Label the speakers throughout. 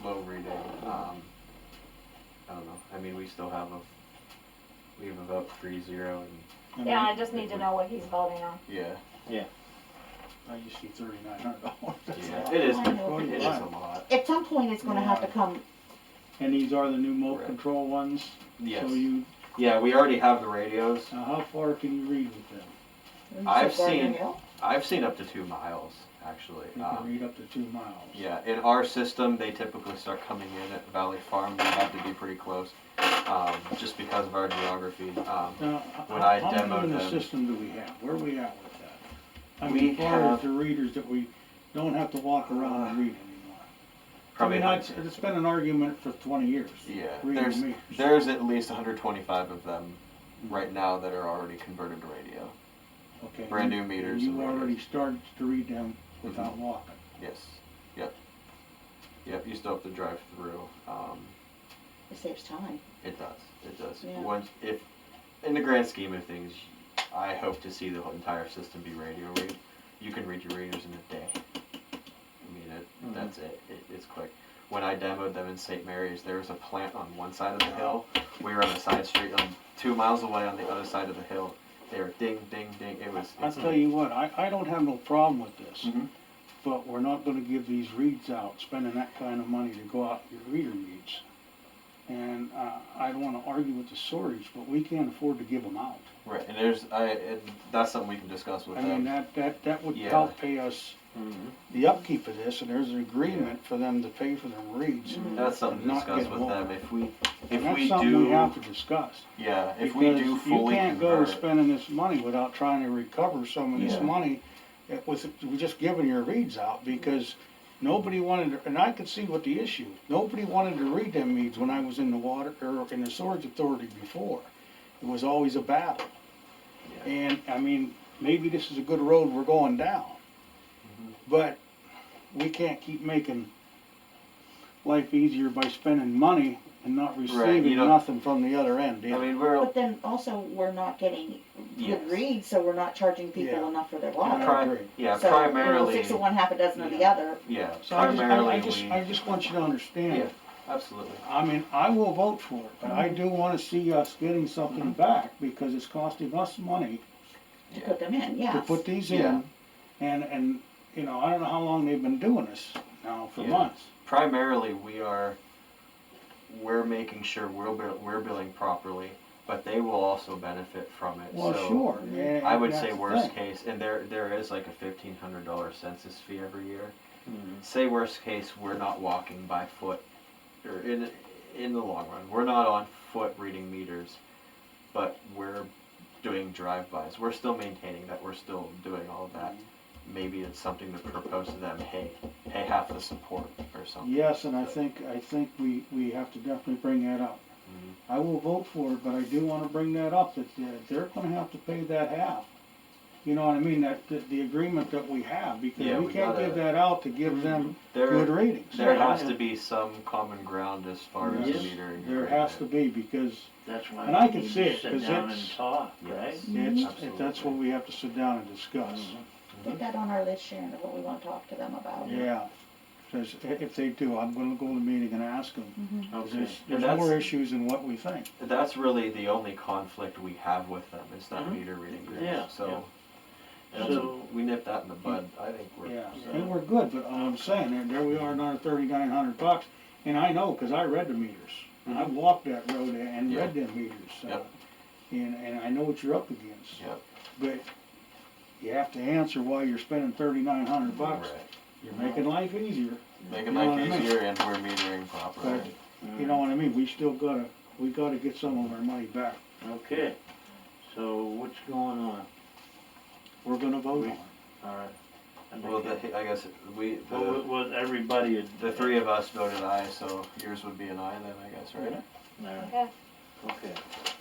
Speaker 1: slow reading, um, I don't know, I mean, we still have a, we have a vote three zero and,
Speaker 2: Mm-hmm.
Speaker 3: Yeah, I just need to know what he's voting on.
Speaker 1: yeah,
Speaker 2: I used to thirty-nine hundred
Speaker 1: yeah,
Speaker 2: dollars.
Speaker 1: it is,
Speaker 4: I know.
Speaker 1: it is a lot,
Speaker 4: At some point, it's gonna have to
Speaker 2: Yeah.
Speaker 4: come,
Speaker 2: And these are the new remote
Speaker 1: Right.
Speaker 2: control ones?
Speaker 1: yes.
Speaker 2: So you,
Speaker 1: Yeah, we already have the radios,
Speaker 2: now how far can you read with them?
Speaker 1: I've
Speaker 4: Garden
Speaker 1: seen-
Speaker 4: Hill?
Speaker 1: I've seen up to two miles, actually,
Speaker 2: You can
Speaker 1: um,
Speaker 2: read up to two miles.
Speaker 1: yeah, in our system, they typically start coming in at Valley Farm, we have to be pretty close, um, just because of our geography, um,
Speaker 2: Now,
Speaker 1: When I
Speaker 2: h- how many in
Speaker 1: demoed
Speaker 2: the
Speaker 1: them-
Speaker 2: system do we have? Where are we at with that? I
Speaker 1: We
Speaker 2: mean, as far
Speaker 1: have-
Speaker 2: as the readers that we don't have to walk around and read anymore. I
Speaker 1: probably.
Speaker 2: mean,
Speaker 1: not-
Speaker 2: that's, it's been an argument for twenty years.
Speaker 1: Yeah,
Speaker 2: Reading
Speaker 1: there's
Speaker 2: meters.
Speaker 1: there's at least 125 of them right now that are already converted to radio.
Speaker 2: Okay,
Speaker 1: brand
Speaker 2: you-
Speaker 1: new meters
Speaker 2: You
Speaker 1: and Mm-hmm. radios.
Speaker 2: already started to read them without walking.
Speaker 1: Yes. Yep. Yep. You still have to drive through. Um,
Speaker 4: It saves time.
Speaker 1: it does. It does.
Speaker 4: Yeah.
Speaker 1: Once if in the grand scheme of things, I hope to see the whole entire system be radio read. You can read your readers in a day. I mean, it,
Speaker 2: Mhm.
Speaker 1: that's it. it. It's quick. When I demoed them in St. Mary's, there was a plant on one side of the hill. We were on a side street, um, two miles away on the other side of the hill. They were ding, ding, ding. It was.
Speaker 2: I'll
Speaker 1: it's-
Speaker 2: tell you what, I, I don't have no problem with this,
Speaker 1: Mhm.
Speaker 2: but we're not gonna give these reads out, spending that kind of money to go out and read reader reads. And, uh, I don't wanna argue with the storage, but we can't afford to give them out.
Speaker 1: Right, and there's, I, and that's something we can discuss with
Speaker 2: I
Speaker 1: them.
Speaker 2: mean, that, that, that would
Speaker 1: Yeah.
Speaker 2: help pay us
Speaker 5: Mm-hmm.
Speaker 2: the upkeep of this, and there's an agreement for them to pay for their reads.
Speaker 1: That's something to
Speaker 2: Not
Speaker 1: discuss
Speaker 2: get
Speaker 1: with them,
Speaker 2: more.
Speaker 1: if we,
Speaker 2: And
Speaker 1: if
Speaker 2: that's
Speaker 1: we
Speaker 2: something we have
Speaker 1: do,
Speaker 2: to discuss.
Speaker 1: yeah, if we do
Speaker 2: Because
Speaker 1: fully
Speaker 2: You can't go
Speaker 1: convert.
Speaker 2: spending this money without trying to recover some of
Speaker 1: Yeah.
Speaker 2: this money It was with just giving your reads out because nobody wanted, to- and I could see what the issue, nobody wanted to read them reads when I was in the water, or in the storage authority before. It was always a battle.
Speaker 1: Yeah.
Speaker 2: And, I mean, maybe this is a good road we're going down.
Speaker 1: Mm-hmm.
Speaker 2: But we can't keep making life easier by spending money and not receiving
Speaker 1: don't-
Speaker 2: nothing from the other end either.
Speaker 1: I mean, we're,
Speaker 4: But then also, we're not getting
Speaker 1: Yes.
Speaker 4: good reads, so we're not charging
Speaker 2: Yeah.
Speaker 4: people enough for their
Speaker 2: I
Speaker 4: water.
Speaker 1: pri-
Speaker 2: agree.
Speaker 1: yeah,
Speaker 4: So, you know,
Speaker 1: primarily,
Speaker 4: Six of one, half a dozen of the other.
Speaker 1: yeah,
Speaker 2: So I just, I- I
Speaker 1: primarily
Speaker 2: just,
Speaker 1: we,
Speaker 2: I just want you to
Speaker 1: yeah,
Speaker 2: understand,
Speaker 1: absolutely.
Speaker 2: I mean, I will vote for it, but I do wanna see us getting something
Speaker 1: Mm-hmm.
Speaker 2: back, because it's costing us money
Speaker 4: to
Speaker 1: Yeah,
Speaker 4: put them in,
Speaker 2: to
Speaker 4: yes.
Speaker 2: put these
Speaker 1: Yeah.
Speaker 2: in. And, and, you know, I don't know how long they've been doing this now, for
Speaker 1: Yeah.
Speaker 2: months.
Speaker 1: primarily, we are, we're making sure we're, bill- we're billing properly, but they will also benefit from it, so.
Speaker 2: Well, sure. and-
Speaker 1: I would
Speaker 2: and
Speaker 1: say
Speaker 2: that's the
Speaker 1: worst
Speaker 2: thing.
Speaker 1: case, and there, there is like a fifteen hundred dollar census fee every year.
Speaker 5: Mm-hmm.
Speaker 1: Say worst case, we're not walking by foot, or in, in the long run, we're not on foot reading meters, but we're doing drive-bys, we're still maintaining that, we're still doing all of that. Maybe it's something to propose to them, hey, pay half the support or something.
Speaker 2: Yes, and I think, I think we, we have to definitely bring that up.
Speaker 1: Mhm.
Speaker 2: I will vote for it, but I do wanna bring that up, that uh, they're gonna have to pay that half. You know what I mean, that, that the agreement that we have,
Speaker 1: Yeah,
Speaker 2: because we
Speaker 1: we
Speaker 2: can't
Speaker 1: gotta- Mhm.
Speaker 2: give that out to give them good
Speaker 1: There,
Speaker 2: ratings.
Speaker 1: there has to be some common ground as far as
Speaker 2: Yes,
Speaker 1: metering.
Speaker 2: There has to be, because
Speaker 5: That's why
Speaker 2: And I
Speaker 5: we
Speaker 2: can
Speaker 5: need
Speaker 2: see
Speaker 5: to
Speaker 2: it, 'cause
Speaker 5: sit down
Speaker 2: it's-
Speaker 5: and talk, right? Mm-hmm.
Speaker 1: Yes.
Speaker 2: it's,
Speaker 1: Absolutely.
Speaker 2: that's what we have to sit down and discuss.
Speaker 4: Put that on our list, Sharon, of what we wanna talk to them about.
Speaker 1: Mhm.
Speaker 2: Yeah, because if they do, I'm gonna go to the meeting and ask them.
Speaker 4: Mhm.
Speaker 2: 'Cause
Speaker 5: Okay.
Speaker 2: There's,
Speaker 1: And
Speaker 2: there's
Speaker 1: that's-
Speaker 2: more issues than what we think.
Speaker 1: That's really the only conflict we have with them is that
Speaker 5: Mhm.
Speaker 1: meter reading group.
Speaker 5: Yeah,
Speaker 1: so that's-
Speaker 5: So,
Speaker 1: we nip that in the bud. I think we're
Speaker 2: Yeah,
Speaker 5: So-
Speaker 2: and we're good, but I'm saying, and there we are, another thirty-nine hundred bucks, and I know, cause I read the meters. And I walked that road and read them meters, so,
Speaker 1: Mm-hmm. Yep.
Speaker 2: and, and I know what you're up against.
Speaker 1: Yep.
Speaker 2: But you have to answer why you're spending thirty-nine hundred bucks,
Speaker 1: right.
Speaker 2: you're making life easier,
Speaker 1: Making
Speaker 2: You know
Speaker 1: life
Speaker 2: what I mean?
Speaker 1: easier, and we're metering properly.
Speaker 2: but, you
Speaker 1: Mm.
Speaker 2: know what I mean, we still gotta, we gotta get some of our money back,
Speaker 5: Mm-hmm. okay, so what's going on?
Speaker 2: we're gonna vote on
Speaker 5: We-
Speaker 2: it.
Speaker 5: All right. I think
Speaker 1: Well, the,
Speaker 5: it-
Speaker 1: I guess we the,
Speaker 5: Well, what- what everybody had.
Speaker 1: the three of us voted aye, so yours would be an aye then, I guess, right?
Speaker 5: All right,
Speaker 3: Okay.
Speaker 5: Okay.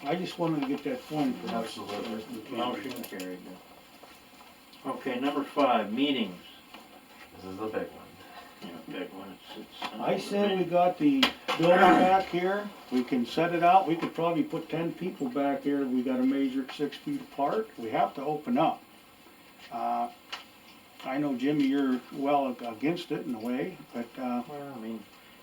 Speaker 2: I just wanted to get that point across.
Speaker 1: Absolutely.
Speaker 5: Motion carried then. Okay, number five, meetings.
Speaker 1: This is the big one.
Speaker 5: Yeah, big one, it's, it's.
Speaker 2: I said we got the building back here, we can set it out, we could probably put ten people back here, we gotta measure it six feet apart, we have to open up. Uh, I know Jimmy, you're well ag- against it in a way, but, uh,
Speaker 5: Well, I mean,